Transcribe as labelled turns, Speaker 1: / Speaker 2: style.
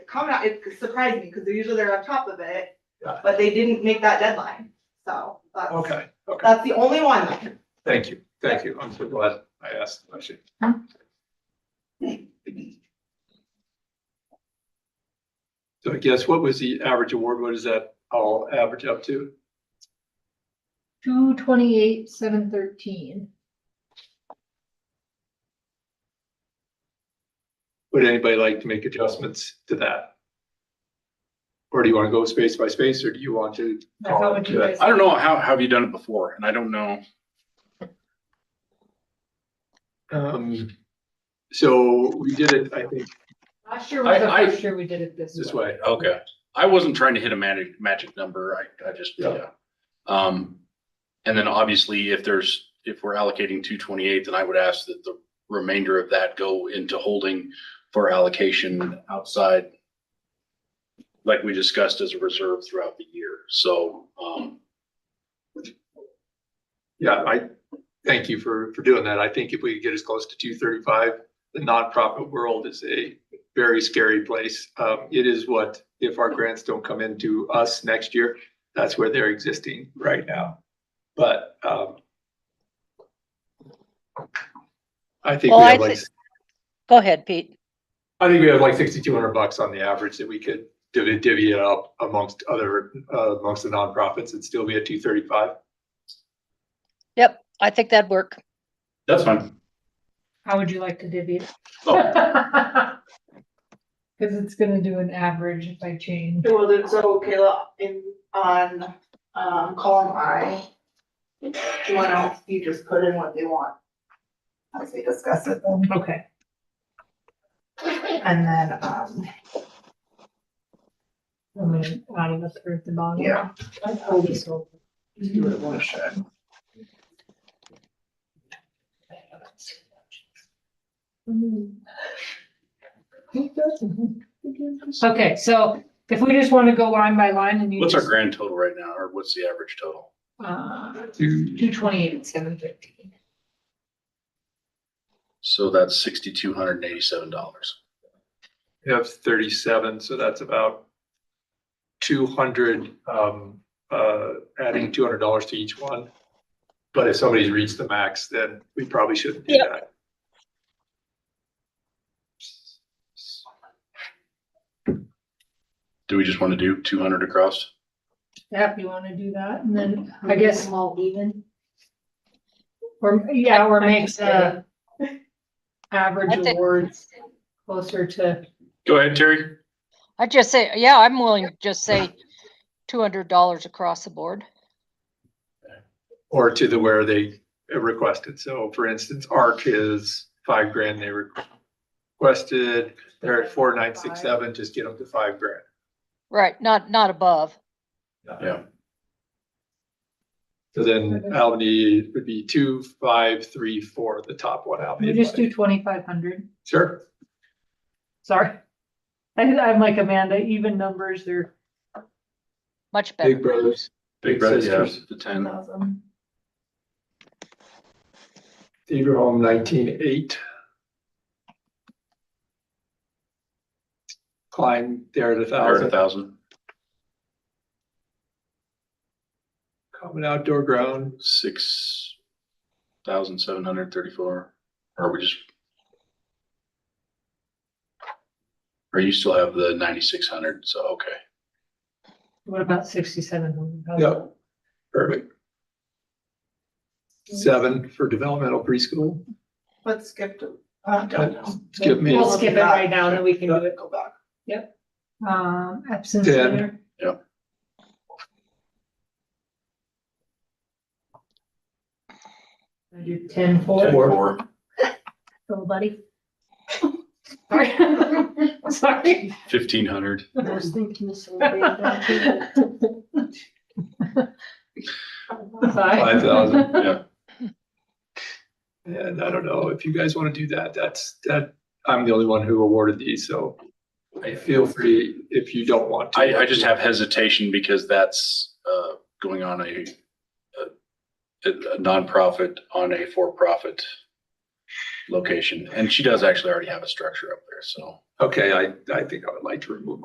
Speaker 1: coming out, it surprised me, because usually they're on top of it,
Speaker 2: Yeah.
Speaker 1: but they didn't make that deadline, so that's,
Speaker 2: Okay, okay,
Speaker 1: that's the only one.
Speaker 2: thank you, thank you. I'm so glad I asked the question. So I guess what was the average award? What is that all average up to?
Speaker 3: Two twenty-eight, seven thirteen.
Speaker 2: Would anybody like to make adjustments to that? Or do you want to go space by space, or do you want to?
Speaker 3: Now, how would you guys-
Speaker 4: Oh, I don't know, how, how have you done it before? And I don't know.
Speaker 2: Um, so we did it, I think,
Speaker 3: Last year
Speaker 4: I-
Speaker 3: was the
Speaker 4: I-
Speaker 3: first year we did it this way.
Speaker 2: this way.
Speaker 4: Okay. I wasn't trying to hit a magic, magic number. I, I just,
Speaker 2: Yeah.
Speaker 4: yeah. Um, and then obviously if there's, if we're allocating two twenty-eight, then I would ask that the remainder of that go into holding for allocation outside. Like we discussed as a reserve throughout the year. So, um,
Speaker 2: Yeah, I, thank you for, for doing that. I think if we could get as close to two thirty-five, the nonprofit world is a very scary place. Um, it is what, if our grants don't come into us next year, that's where they're existing right now. But, um, I think
Speaker 5: Well,
Speaker 2: we
Speaker 5: I
Speaker 2: have like,
Speaker 5: thi- Go ahead, Pete.
Speaker 2: I think we have like sixty-two hundred bucks on the average that we could divvy, divvy it up amongst other, uh, amongst the nonprofits and still be at two thirty-five.
Speaker 5: Yep, I think that'd work.
Speaker 4: that's fine.
Speaker 3: How would you like to divvy it?
Speaker 4: Oh,
Speaker 3: Cause it's gonna do an average if I change.
Speaker 1: Well, then, so Kayla, in, on, um, column I, someone else, you just put in what they want. As we discuss it then,
Speaker 3: Okay,
Speaker 1: and then, um,
Speaker 3: I'm gonna out of the third the bottom.
Speaker 1: yeah.
Speaker 3: I pulled this over.
Speaker 1: You would want to share.
Speaker 3: Okay, so if we just wanna go line by line and you
Speaker 4: Hmm. what's our
Speaker 3: just,
Speaker 4: grand total right now? Or what's the average total?
Speaker 3: uh,
Speaker 2: Two,
Speaker 3: two twenty-eight, seven fifteen.
Speaker 4: So that's sixty-two hundred and eighty-seven dollars.
Speaker 2: We have thirty-seven, so that's about two hundred, um, uh,
Speaker 3: Mm.
Speaker 2: adding two hundred dollars to each one. But if somebody's reached the max, then we probably shouldn't do
Speaker 5: Yep.
Speaker 2: that.
Speaker 4: Do we just want to do two hundred across?
Speaker 3: Yep, you wanna do that, and then I guess. All even. Or, yeah, or make the
Speaker 5: I
Speaker 3: average
Speaker 5: think-
Speaker 3: awards closer to,
Speaker 4: Go ahead, Terry.
Speaker 5: I just say, yeah, I'm willing to just say two hundred dollars across the board.
Speaker 2: Or to the where they requested. So for instance, ARC is five grand they requested. They're at four, nine, six, seven, just get them to five grand.
Speaker 5: Right, not, not above.
Speaker 4: Yeah.
Speaker 2: So then Albany would be two, five, three, four, the top one out.
Speaker 3: we just do twenty-five hundred,
Speaker 2: Sure.
Speaker 3: sorry. I, I'm like Amanda, even numbers, they're.
Speaker 5: Much
Speaker 2: Big
Speaker 5: better.
Speaker 2: brothers. Big brothers, yeah,
Speaker 4: The ten.
Speaker 3: thousand.
Speaker 2: Theater Home nineteen eight. Klein there at a
Speaker 4: Or a
Speaker 2: thousand,
Speaker 4: thousand.
Speaker 2: common outdoor ground,
Speaker 4: Six thousand seven hundred thirty-four. Or we just. Or you still have the ninety-six hundred, so, okay.
Speaker 3: What about sixty-seven hundred?
Speaker 2: Yep. perfect. Seven for developmental preschool,
Speaker 1: Let's skip to, uh, don't know.
Speaker 2: skip me,
Speaker 3: We'll skip it right now, then we can do it,
Speaker 1: Go back.
Speaker 3: um, absence
Speaker 2: Ten.
Speaker 3: leader. I do ten
Speaker 2: Ten.
Speaker 3: four,
Speaker 2: Four.
Speaker 4: Four.
Speaker 3: little buddy. Sorry. Sorry.
Speaker 4: Fifteen hundred.
Speaker 3: I was thinking the same thing.
Speaker 2: five thousand.
Speaker 4: Yeah.
Speaker 2: And I don't know if you guys want to do that, that's, that, I'm the only one who awarded these, so feel free if you don't want to.
Speaker 4: I, I just have hesitation because that's, uh, going on a, a- a nonprofit on a for-profit location. And she does actually already have a structure up there, so.
Speaker 2: Okay, I, I think I would like to remove